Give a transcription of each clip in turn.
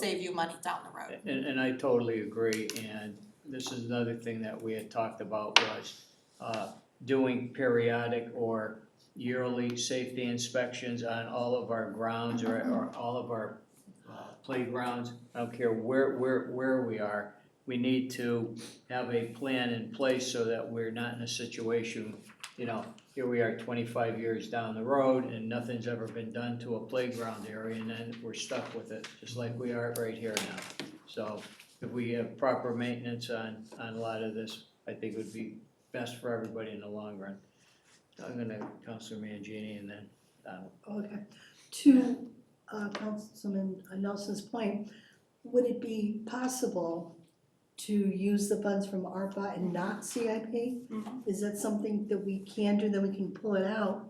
save you money down the road. And, and I totally agree, and this is another thing that we had talked about was, uh, doing periodic or yearly safety inspections on all of our grounds or, or all of our uh, playgrounds. I don't care where, where, where we are, we need to have a plan in place so that we're not in a situation, you know, here we are twenty-five years down the road and nothing's ever been done to a playground area and then we're stuck with it, just like we are right here now. So if we have proper maintenance on, on a lot of this, I think would be best for everybody in the long run. I'm gonna, Councilor Mangini and then, um, Donald. Oh, Okay, to uh, Councilman Nelson's point, would it be possible to use the funds from ARPA and not CIP? Mm-hmm. Is that something that we can do, that we can pull it out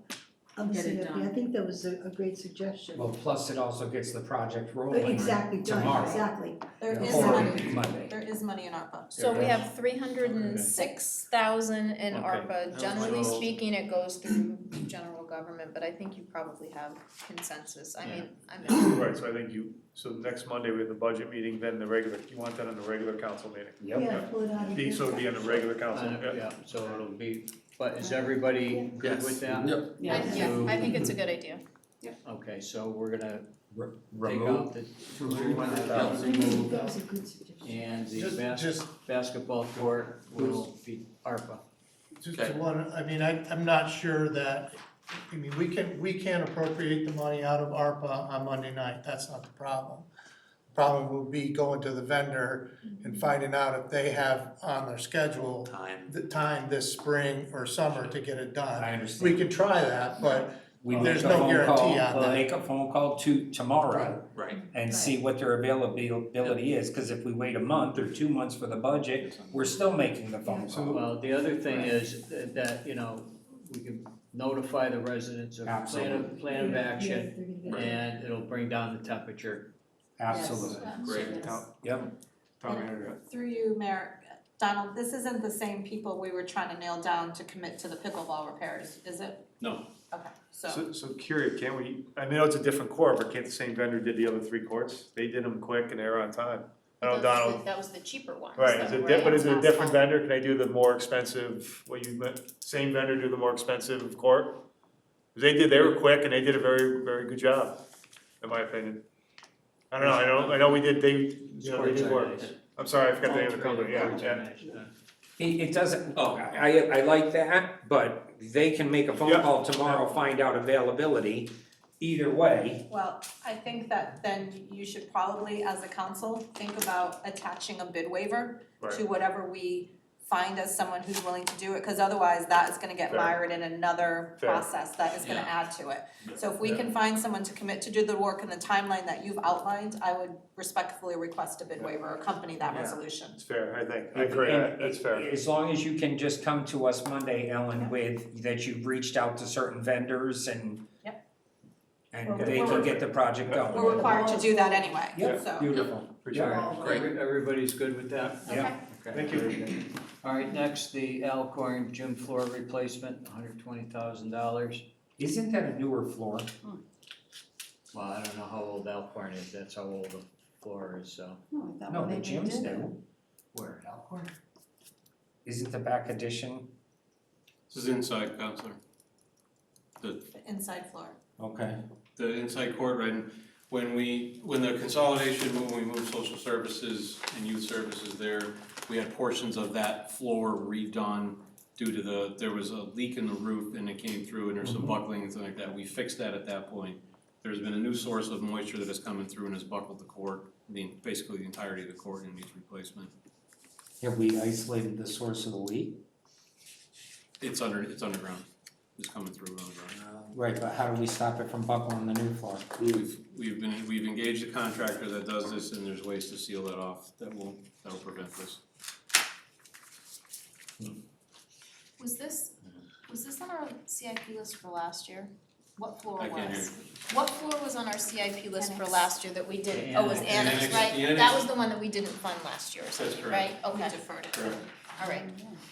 of the Get it CIP? I done. think that was a, a great suggestion. Uh, Well, plus it also gets the project rolling. Exactly, done, tomorrow. exactly. There is Or- money, Or Monday. there is money in ARPA. So we There have three hundred and six thousand in Okay. ARPA, generally So- speaking, it goes through general government, but I think you probably have consensus, I mean, I'm. Right, so I think you, so next Monday, we have the budget meeting, then the regular, you want that on the regular council meeting? Yep, Yeah, pull it out. of Be- here. So it'd be on the regular council, Uh, yeah. yeah, so it'll be, but is everybody good with that? I- yeah, I think it's a good idea. Okay, so we're gonna Re- take remove out the two hundred I thousand, think that was a good suggestion. And the Just- bas- just- basketball court will be ARPA. Just to one, I mean, I, I'm not sure that, I mean, we can, we can appropriate the money out of ARPA on Monday night, that's not the problem. Problem would be going to the vendor and finding out if they have on their schedule time. the time this spring or summer to get it I done. We understand. can try that, but We make there's a no phone guarantee call- on that. Make a phone call to tomorrow Right. and see what their availability is, cause if we wait a month or two months for the budget, we're still making the phone call. Well, the other thing is that- that, you know, we can notify the residents of plan of, Absolutely. plan of action, Yeah, they're gonna be- and it'll bring down the temperature. Absolutely, Great. yep. Tom, you're up. Through you, Mayor, Donald, this isn't the same people we were trying to nail down to commit to the pickleball repairs, is it? No. Okay, so, So, so Curia, can't we, I know it's a different court, but can't the same vendor did the other three courts? They did them quick and they were on time. I That know was Donald, the- That was the cheaper one, right, is it, di- but is it a different vendor? Can I do the more expensive, what you meant, same vendor do the more expensive court? They did, they were quick and they did a very, very good job, in my opinion. I don't know, I don't, I know we did, they, you know, they did work. I'm sorry, I forgot the name of the company, yeah, yeah. It, it doesn't, Oh. I, I like that, but they can make a phone Yeah. call tomorrow, find out availability, either way. well, I think that then you should probably, as a council, think about attaching a bid waiver to Right. whatever we find as someone who's willing to do it, cause otherwise that is gonna get Fair. mired in another Fair. process that is gonna Yeah. add to it. So if we can find someone to commit to do the work in the timeline that you've outlined, I would respectfully request a bid waiver accompany that Yeah. resolution. It's fair, I think, I agree, I- that's fair. As long as you can just come to us Monday, Ellen, with that you've reached out to certain vendors and and Well, they can get the project going. We're required to do that anyway, Yep, so. beautiful. Appreciate it. Alright, Great. Everybody's good with that? Yeah. Okay. Thank you. very good. All right, next, the Alcorn gym floor replacement, hundred twenty thousand dollars. Isn't that a newer floor? Well, I don't know how old Alcorn is, that's how old the floor is, so. Oh, No, the gym's new. Where, Alcorn? Isn't the back addition? This is inside, counselor. The Inside floor. Okay. The inside court, right, and when we, when the consolidation, when we moved social services and youth services there, we had portions of that floor redone due to the, there was a leak in the roof and it came through and there's Mm-hmm. some buckling and something like that. We fixed that at that point. There's been a new source of moisture that has coming through and has buckled the court, the, basically the entirety of the court and needs replacement. Have we isolated the source of the leak? It's under, it's underground, it's coming through underground. Right, but how do we stop it from buckling the new floor? We've, we've been, we've engaged a contractor that does this, and there's ways to seal that off that will, that will prevent this. Was this, was this on our CIP list for last year? What floor I can't hear. was? What floor was on our CIP list for Annex. last year that we didn't, oh, it was The annex. annex, The annex, the right? That annex. was the one that we didn't fund last year or something, right? correct. We Okay, deferred it. Correct. all right.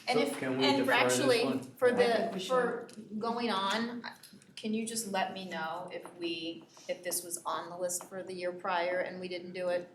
And So if, can we and for defer this actually, one? for I the, think we for going on, I- can you just let me know if we, if this was on the list for the year prior and we didn't do it?